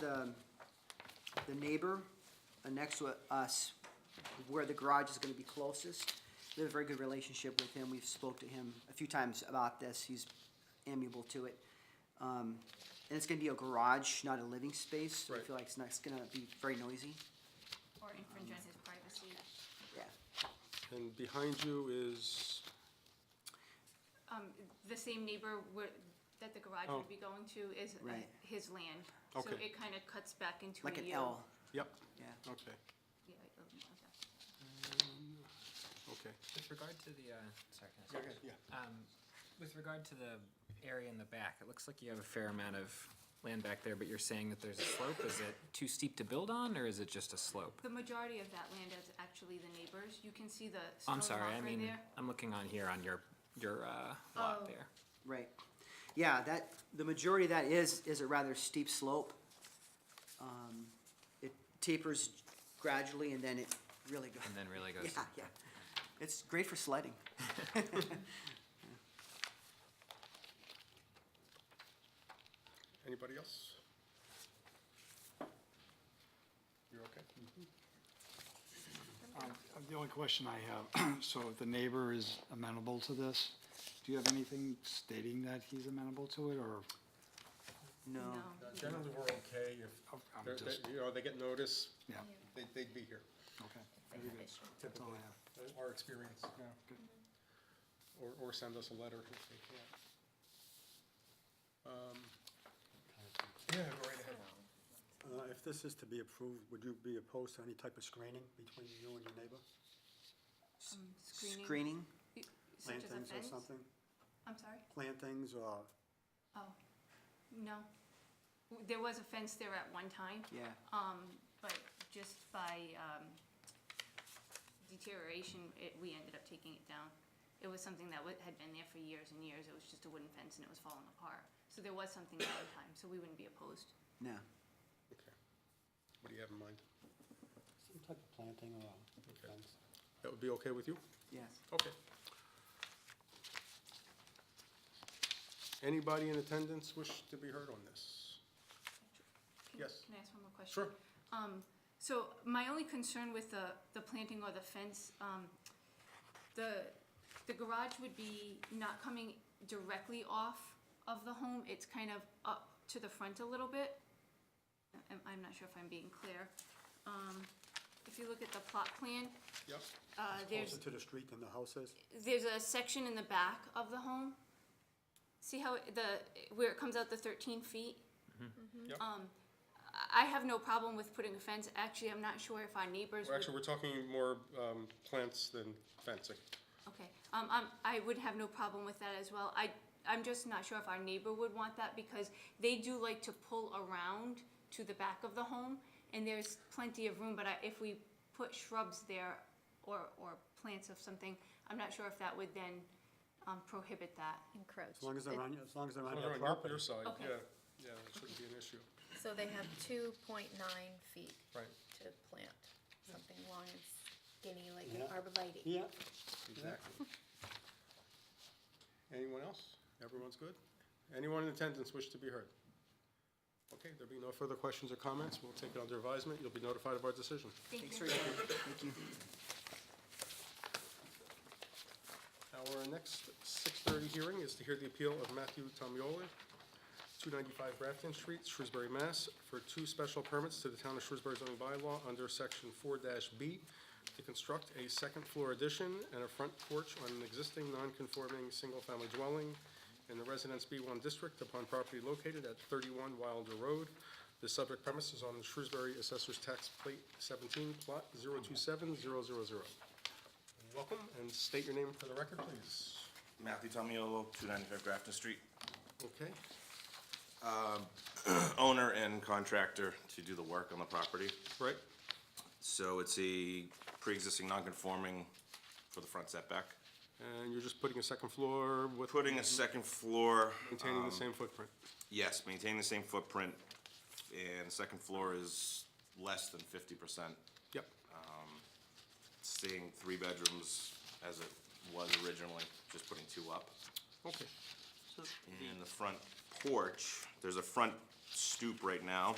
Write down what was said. the, the neighbor uh, next to us, where the garage is gonna be closest. We have a very good relationship with him. We've spoke to him a few times about this. He's amiable to it. Um, and it's gonna be a garage, not a living space. so I Right. feel like it's not, it's gonna be very noisy. Or infringe on his privacy. Yeah. And behind you is, Um, the same neighbor where, that the garage Oh. would be going to is uh, Right. his land. So Okay. it kind of cuts back into a U. Like an L, yep, yeah. okay, Yeah, like a- like that. okay. With regard to the, uh, sorry, can I say- Yeah. Um, with regard to the area in the back, it looks like you have a fair amount of land back there, but you're saying that there's a slope. Is it too steep to build on, or is it just a slope? The majority of that land is actually the neighbors. You can see the I'm stone sorry, I walkway mean, there. I'm looking on here on your, your, uh, lot Oh. there. Right. Yeah, that, the majority of that is, is a rather steep slope. Um, It tapers gradually and then it really goes. And then really goes, Yeah, yeah. It's great for sledding. Anybody else? You're okay? Uh, The only question I have, so if the neighbor is amenable to this, do you have anything stating that he's amenable to it, or? No. No. Generally, we're okay if, oh, I'm they're- just- they- you know, they get notice, Yeah, they, they'd be here, okay. That's all typically, I have. our experience, yeah. Good. Or, or send us a letter if they can. Um, Yeah, go right ahead. Uh, If this is to be approved, would you be opposed to any type of screening between you and your neighbor? Um, Screening, Screening, such as a Plantings or fence? something? I'm sorry? Plantings or, Oh, no. W- There was a fence there at one time, yeah. um, but just by, um, deterioration, it, we ended up taking it down. It was something that wa- had been there for years and years. It was just a wooden fence and it was falling apart. So there was something at one time, so we wouldn't be opposed. No. Okay. What do you have in mind? some type of planting or Okay. fence? That would be okay with you? Yes. Okay. Anybody in attendance wish to be heard on this? Can- Yes. Can I ask one more question? Sure. Um, so my only concern with the, the planting or the fence, um, the, the garage would be not coming directly off of the home, it's kind of up to the front a little bit. I'm, I'm not sure if I'm being clear. Um, if you look at the plot plan, Yep. uh, there's, Closer to the street than the house is? there's a section in the back of the home. See how it- the, where it comes out the thirteen feet? Yep. Um, I I have no problem with putting a fence, actually, I'm not sure if our neighbors Well, would, Actually, we're talking more um, plants than fencing. okay. Um, um, I would have no problem with that as well, I, I'm just not sure if our neighbor would want that, because they do like to pull around to the back of the home, and there's plenty of room, but I, if we put shrubs there, or, or plants of something, I'm not sure if that would then, um, prohibit that. Encroach. As long as they're on, as long as they're on Well, your they're Oh, on property? your- your side, Okay. yeah, yeah, it shouldn't be an issue. So they have two point nine feet Right. to plant something long and skinny like Yeah. an arborvitae. Yeah, Exactly. Anyone else? Everyone's good? Anyone in attendance wish to be heard? Okay, there be no further questions or comments, we'll take it under advisement, you'll be notified of our decision. Thank Thanks you. for your time. Thank you. Our next 6:30 hearing is to hear the appeal of Matthew Tomioli, 295 Grafton Street, Shrewsbury, Mass., for two special permits to the Town of Shrewsbury zoning bylaw under Section 4-B to construct a second-floor addition and a front porch on an existing non-conforming single-family dwelling in the Residence B1 District upon property located at 31 Wilder Road. The subject premise is on the Shrewsbury Assessor's Tax Plate 17, Plot 027000. Welcome, and state your name for the record, please. Matthew Tomiolo, 295 Grafton Street, Okay, owner and contractor to do the work on the property. right, So it's a pre-existing non-conforming for the front setback. and you're just putting a second floor with, Putting a second floor, containing the same footprint. yes, maintain the same footprint, and second floor is less than 50%, Yep, staying three bedrooms as it was originally, just putting two up. okay, And the front porch, there's a front stoop right now.